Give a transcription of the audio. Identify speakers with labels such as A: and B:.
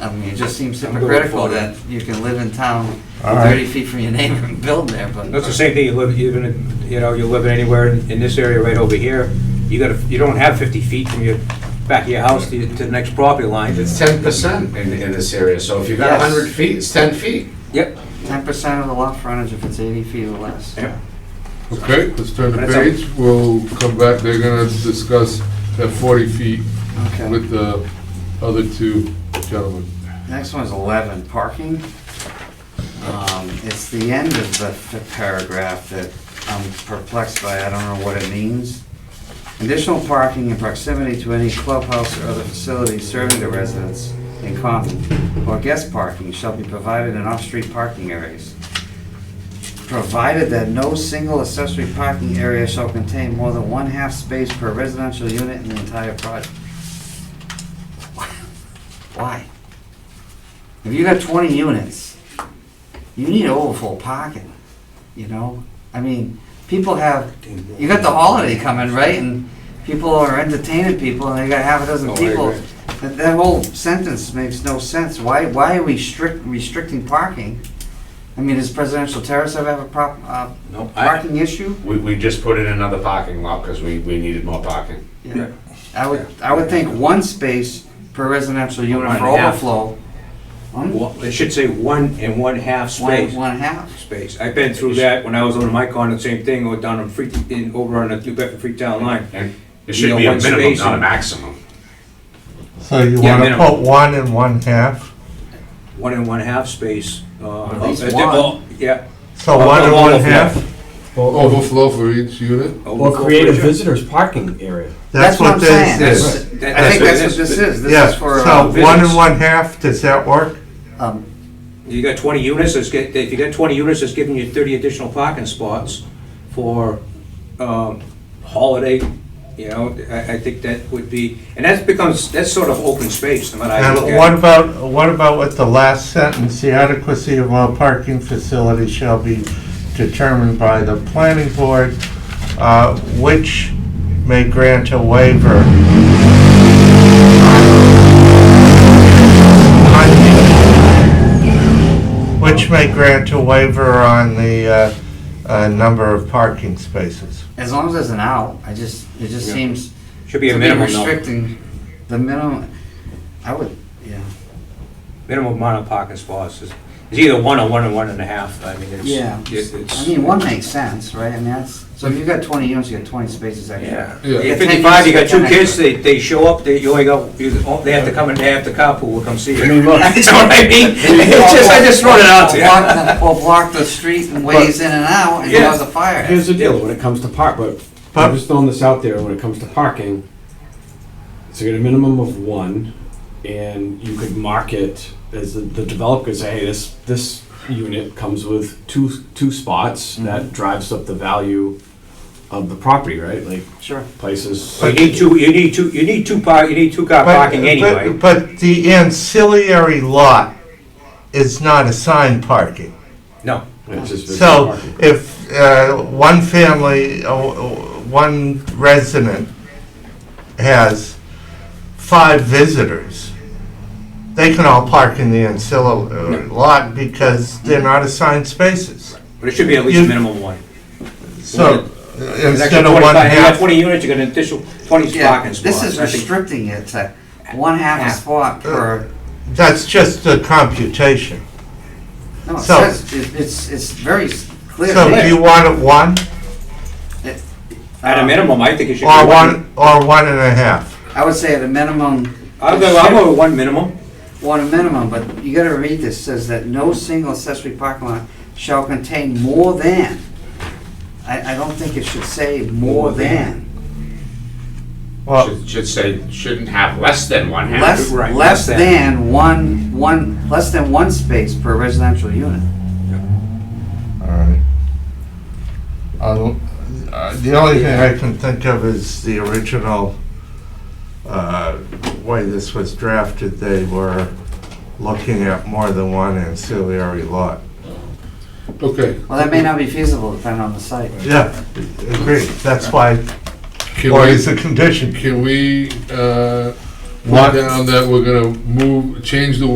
A: I mean, it just seems
B: I'm going for
A: hypocritical
B: it.
A: that you can live in town
C: All right.
A: thirty feet from your neighbor and build there, but.
B: That's the same thing, you live, even, in- you know, you're living anywhere in in this area right over here, you gotta, you don't have 50 feet from your, back of your house to to the next property line.
D: It's ten percent in, in this area, so if you've got
A: Yes.
D: hundred feet, it's ten feet.
B: Yep,
A: Ten percent of the lot frontage if it's eighty feet or less.
B: Yep.
E: Okay, let's turn the
B: But it's a-
E: page, we'll come back, they're gonna discuss that forty feet
A: Okay.
E: with the other two gentlemen.
A: Next one is eleven, parking. Um, It's the end of the f- paragraph that I'm perplexed by, I don't know what it means. Additional parking in proximity to any clubhouse or other facility serving the residents in common or guest parking shall be provided in off-street parking areas. Provided that no single accessory parking area shall contain more than one half space per residential unit in the entire project. Why? If you got twenty units, you need overflow parking, you know? I mean, people have, you got the holiday coming, right? And people are entertaining people and they got half a
D: Oh,
A: dozen
D: I
A: people.
D: agree.
A: That, that whole sentence makes no sense. Why, why are we strict, restricting parking? I mean, does Presidential Terrace ever have a prop, uh,
D: No, I,
A: parking issue?
D: we, we just put in another parking lot because we, we needed more parking.
A: Yeah. I would, I would think one space per residential unit
B: One
A: for
B: and a half.
A: overflow. One,
B: Well, it should say one and one-half
A: one,
B: space.
A: one half.
B: Space, I've been through that when I was on my condo, same thing, or down in Free, in, over on the New Bedford Freetown line.
D: And it
B: You
D: should
B: know,
D: be a
B: one
D: minimum,
B: space
D: not a
B: and-
D: maximum.
C: So you
B: Yeah,
C: want to
B: minimum.
C: put one and one half?
B: One and one-half space. uh,
A: At least
B: uh,
A: one.
B: Yeah.
C: So
B: Uh,
C: one and
B: uh,
C: one
B: overflow.
C: half?
F: Oh,
E: Overflow for each unit?
F: Or create a visitor's parking area.
C: That's what this
A: That's-
C: is.
A: I think that's what this is. This
C: Yeah,
A: is for,
C: so
A: uh,
B: business.
C: one and one half, does that work?
A: um,
B: You got 20 units, it's get, if you got 20 units, it's giving you 30 additional parking spots for um, holiday, you know, I, I think that would be, and that becomes, that's sort of open space, no matter how you
C: And
B: look
C: what
B: at it.
C: about, what about with the last sentence, the adequacy of all parking facilities shall be determined by the planning board, uh, which may grant a waiver. Which may grant a waiver on the, uh, uh, number of parking spaces.
A: as long as there's an out, I just, it just
B: Yeah.
A: seems
B: Should be a
A: to be
B: minimum, number-
A: restricting the minimum, I would, yeah.
B: minimum amount of parking spots. It's it's either one or one and one and a half, I mean, it's.
A: Yeah,
B: it- it's-
A: I mean, one makes sense, right? I mean, that's, so if you've got twenty units, you got twenty spaces extra.
B: Yeah.
E: Yeah.
B: At
A: Ten
B: fifty-five, you got
A: units,
B: two
A: ten
B: kids,
A: extra.
B: they, they show up, they, you only got, you, oh, they have to come and they have to carpool, come see you.
F: I mean, look,
B: That's what I mean. It's just, I just throw it out to you.
A: Or block the- Or block the street and ways in and out and
B: Yeah.
A: cause a fire.
F: here's the deal, when it comes to park, but, I'm just throwing this out there, when it comes to parking, so you get a minimum of one, and you could mark it as the- the developer could say, hey, this, this unit comes with two, two spots, that drives up the value of the property, right? Like
A: Sure.
F: places.
B: You need two, you need two, you need two par, you need two car
C: But-
B: parking
C: but-
B: anyway.
C: But the ancillary lot is not assigned parking.
B: No,
F: It's just- it's
C: So
F: parking.
C: if uh, one family, uh, one resident has five visitors, they can all park in the ancillary lot because they're not assigned spaces.
B: but it should be at
C: You-
B: least minimum one.
C: So
B: There's
C: instead
B: actually
C: of one
B: 25 You got
C: half,
B: twenty units, you got an additional twenty
A: Yeah,
B: parking spots.
A: this is
B: I think-
A: restricting it to one half a
B: Half.
A: spot per,
C: that's just a computation.
A: no, it
C: So-
A: says, it- it's, it's very s- clear.
C: So do you want it one
B: At a minimum, I think it should be
C: or
B: one.
C: one, or one and a half?
A: I would say at a minimum,
B: I'll go, I'll go with one minimum.
A: Well, a minimum, but you gotta read this, says that no single accessory parking lot shall contain more than. I, I don't think it should say more than.
C: Well,
D: Should, should say, shouldn't have less than one half.
A: Less,
B: right,
A: less
B: less than.
A: than one, one, less than one space per residential unit.
C: all right. I'll- uh, The only thing I can think of is the original uh, way this was drafted, they were looking at more than one ancillary lot.
E: Okay.
A: Well, that may not be feasible depending on the site.
C: Yeah, agreed, that's why,
E: Can
C: or is
E: we,
C: a condition.
E: can we, uh,
C: Lot-
E: put down that we're gonna move, change the